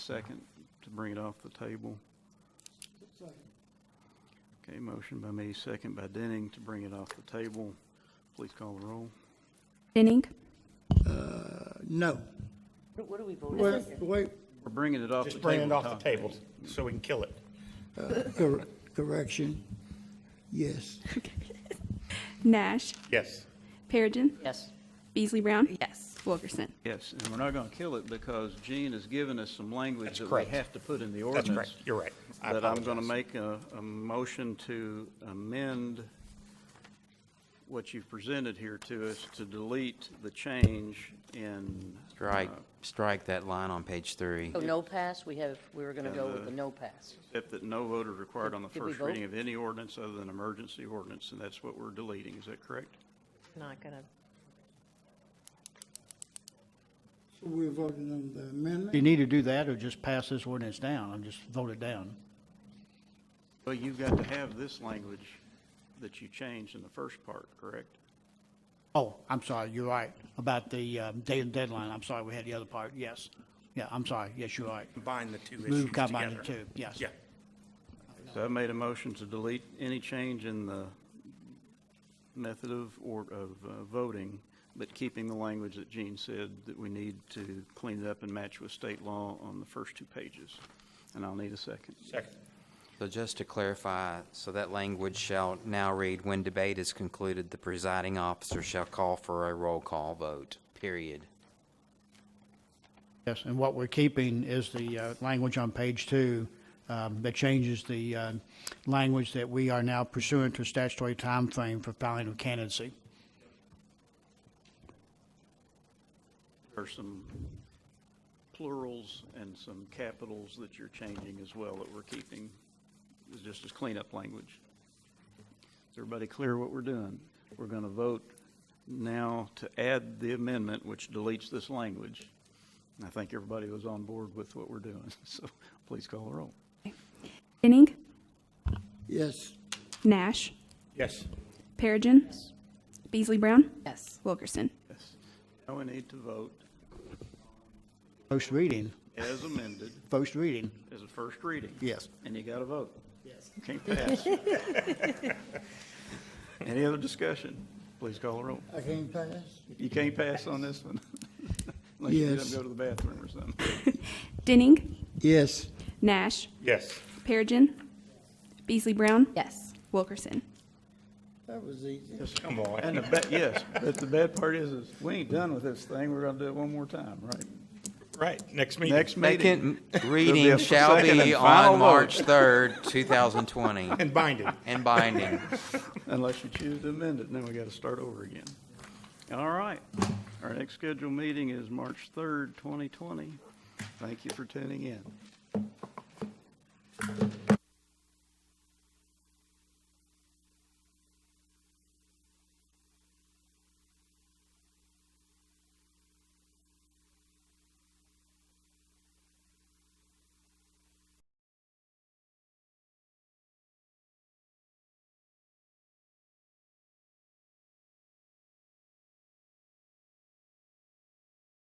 Second, to bring it off the table. Okay, motion by me, second by Denning to bring it off the table. Please call the roll. Denning? No. What are we voting on Wait, here? wait, We're bringing it off the Just table. bring it off Todd. the table so we can kill it. cor- correction. Yes, Nash? Yes. Perigin? Yes. Beasley Brown? Yes. Wilkerson? Yes, and we're not going to kill it because Gene has given us some language That's that we correct. have to put in the That's ordinance. correct. You're right. I That I'm going to apologize. make a, a motion to amend what you've presented here to us to delete the change in. Strike, uh, strike that line on page three. So Oh, no pass, we have, we were going to go with the no pass. Except that no vote is required on the Did we first reading vote? of any ordinance other than emergency ordinance, and that's what we're deleting, is that correct? Not gonna, So we're voting on the Do you amendment. need to do that or just pass this ordinance down and just vote it down? Well, you've got to have this language that you changed in the first part, correct? Oh, I'm sorry, you're right, about the um, day and deadline, I'm sorry, we had the other part, yes. Yeah, I'm sorry, yes, you're right. Combine the two issues Move combine the together. two, yes. Yeah. So I made a motion to delete any change in the method of, or of uh, voting, but keeping the language that Gene said that we need to clean it up and match with state law on the first two pages. And I'll need a second. Second. So just to clarify, so that language shall now read, when debate is concluded, the presiding officer shall call for a roll call vote, period. Yes, and what we're keeping is the uh, language on page two um, that changes the uh, language that we are now pursuant to statutory timeframe for filing of candidacy. There's some plurals and some capitals that you're changing as well that we're keeping, It's just as cleanup language. Is everybody clear what we're doing? We're going to vote now to add the amendment, which deletes this language. And I think everybody was on board with what we're doing, so please call the roll. Denning? Yes, Nash? Yes. Perigin? Beasley Brown? Yes. Wilkerson? Yes. Now we need to vote First reading, as amended, first reading, as a first reading. yes. And you got to vote. Yes. Can't pass. Any other discussion? Please call the roll. I can't pass. You can't pass on this one. Unless you get up Yes. and go to the bathroom or something. Denning? Yes, Nash? Yes. Perigin? Beasley Brown? Yes. Wilkerson? that was easy. Come on. And the bad, yes, but the bad part is, is we ain't done with this thing. We're gonna do it one more time, right? Right. Next meeting. Next meeting. Second There'll be a reading shall second and be final on vote. March third, two thousand twenty, And binding. and binding. Unless you choose to amend it, then we gotta start over again. All right. Our next scheduled meeting is March third, twenty twenty. Thank you for tuning in.